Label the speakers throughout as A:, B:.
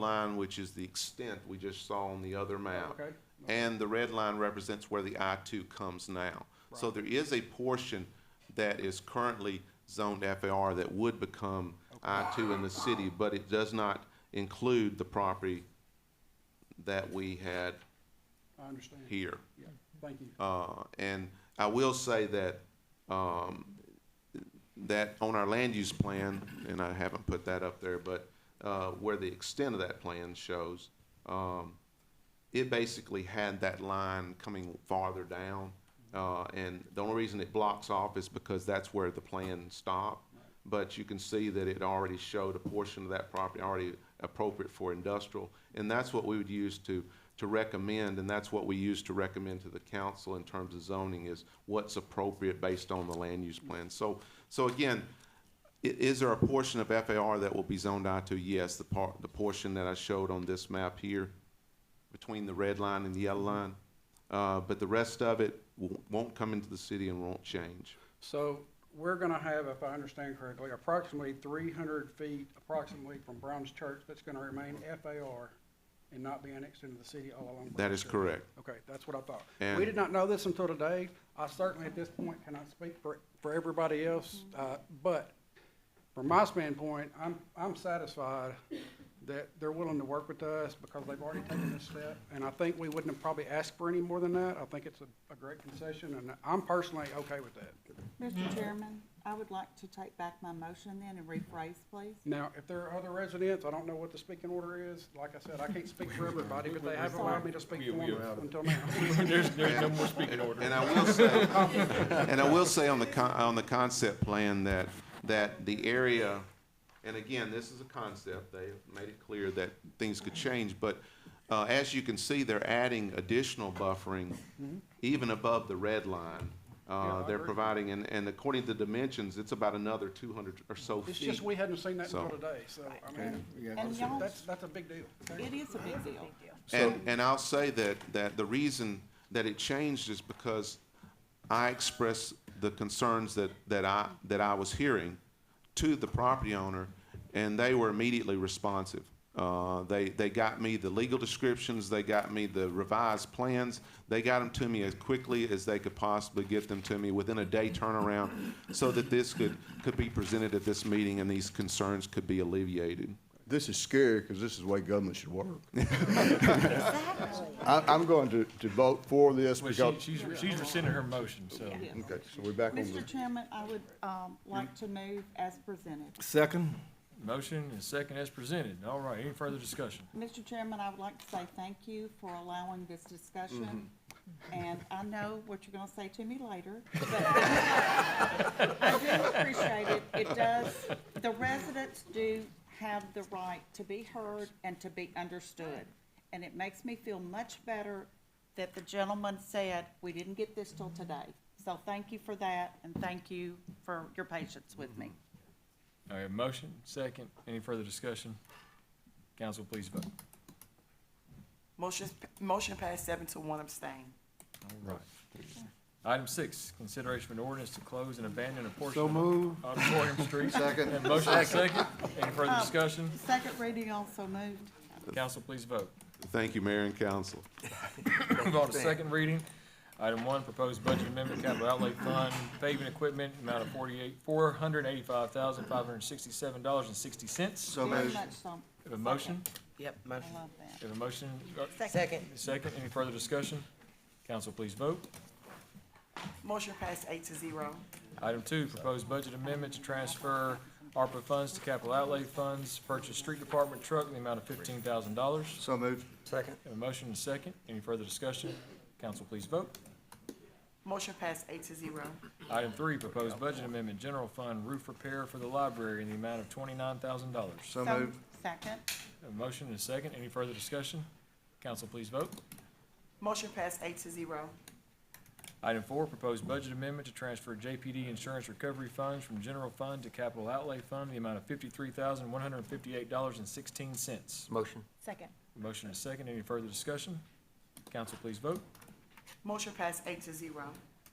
A: line, which is the extent we just saw on the other map.
B: okay.
A: And the red line represents where the I two comes now. So there is a portion that is currently zoned FAR that would become I two in the city, but it does not include the property that we had
B: I understand.
A: here.
B: Yeah, thank you.
A: Uh, and I will say that, um, that on our land use plan, and I haven't put that up there, but, uh, where the extent of that plan shows, um, it basically had that line coming farther down. Uh, and the only reason it blocks off is because that's where the plan stopped. But you can see that it already showed a portion of that property already appropriate for industrial. And that's what we would use to, to recommend, and that's what we use to recommend to the council in terms of zoning is what's appropriate based on the land use plan. So, so again, I- is there a portion of FAR that will be zoned out to? Yes, the part, the portion that I showed on this map here between the red line and the yellow line. Uh, but the rest of it w- won't come into the city and won't change.
B: So we're gonna have, if I understand correctly, approximately three hundred feet approximately from Brown's Church that's gonna remain FAR and not be annexed into the city all along.
A: That
B: Brown's
A: is
B: Church.
A: correct.
B: Okay, that's what I thought. We
A: And-
B: did not know this until today. I certainly at this point cannot speak for, for everybody else, uh, but from my standpoint, I'm, I'm satisfied that they're willing to work with us because they've already taken this step. And I think we wouldn't have probably asked for any more than that. I think it's a, a great concession and I'm personally okay with that.
C: Mr. Chairman, I would like to take back my motion then and rephrase, please.
B: Now, if there are other residents, I don't know what the speaking order is. Like I said, I can't speak for everybody, but they haven't allowed me to speak for them until now.
D: There's, there's no more speaking order.
A: And I will say, and I will say on the con, on the concept plan that, that the area, and again, this is a concept, they have made it clear that things could change, but, uh, as you can see, they're adding additional buffering even above the red line.
B: Yeah,
A: Uh,
B: I
A: they're
B: agree.
A: providing, and, and according to dimensions, it's about another two hundred or so
B: It's
A: feet.
B: just we hadn't seen that until
A: So-
B: today, so, I mean,
C: And y'all,
B: that's, that's a big deal.
C: it is a big deal.
A: And, and I'll say that, that the reason that it changed is because I expressed the concerns that, that I, that I was hearing to the property owner, and they were immediately responsive. Uh, they, they got me the legal descriptions, they got me the revised plans, they got them to me as quickly as they could possibly get them to me within a day turnaround, so that this could, could be presented at this meeting and these concerns could be alleviated.
E: This is scary because this is the way government should work. I, I'm going to, to vote for this
D: Well,
E: because,
D: she,
E: okay,
D: she's, she's rescinding her motion, so.
C: Yes.
E: so we're back on
C: Mr.
E: the,
C: Chairman, I would, um, like to move as presented.
F: Second?
D: Motion and second as presented. All right, any further discussion?
C: Mr. Chairman, I would like to say thank you for allowing this discussion. And I know what you're gonna say to me later, but I do appreciate it. It does, the residents do have the right to be heard and to be understood. And it makes me feel much better that the gentleman said, we didn't get this till today. So thank you for that, and thank you for your patience with me.
F: Mm-hmm.
D: All right, motion, second, any further discussion? Council, please vote.
G: Motion, motion passed seven to one abstain.
D: All right. Item six, consideration of an ordinance to close and abandon a portion
F: So
D: of
F: moved.
D: Auditorium Street.
E: Second.
D: And Motion and second, any further discussion?
C: Second reading also moved.
D: Council, please vote.
A: Thank you, Mayor and Council.
D: Move on to second reading. Item one, proposed budget amendment, capital outlay fund, paving equipment, amount of forty-eight, four hundred eighty-five thousand, five hundred sixty-seven dollars and sixty cents.
F: So
C: Very
F: moved.
C: much so.
D: Have a motion,
G: Yep,
C: I
G: motion.
C: love that.
D: have a motion, uh,
G: Second.
D: second, any further discussion? Council, please vote.
G: Motion passed eight to zero.
D: Item two, proposed budget amendment to transfer ARPA funds to capital outlay funds, purchase street department truck in the amount of fifteen thousand dollars.
F: So moved.
G: Second.
D: Have a motion, second, any further discussion? Council, please vote.
G: Motion passed eight to zero.
D: Item three, proposed budget amendment, general fund roof repair for the library in the amount of twenty-nine thousand dollars.
F: So
C: So,
F: moved.
C: Second.
D: A motion and a second. Any further discussion? Council, please vote.
G: Motion passed eight to zero.
D: Item four, proposed budget amendment to transfer JPD insurance recovery funds from general fund to capital outlay fund, in the amount of fifty-three thousand, one hundred and fifty-eight dollars and sixteen cents.
F: Motion.
C: Second.
D: Motion and a second. Any further discussion? Council, please vote.
G: Motion passed eight to zero.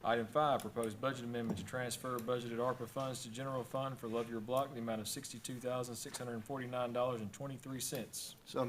D: Item five, proposed budget amendment to transfer budgeted ARPA funds to general fund for Love Your Block, in the amount of sixty-two thousand, six hundred and forty-nine dollars and twenty-three cents.
F: So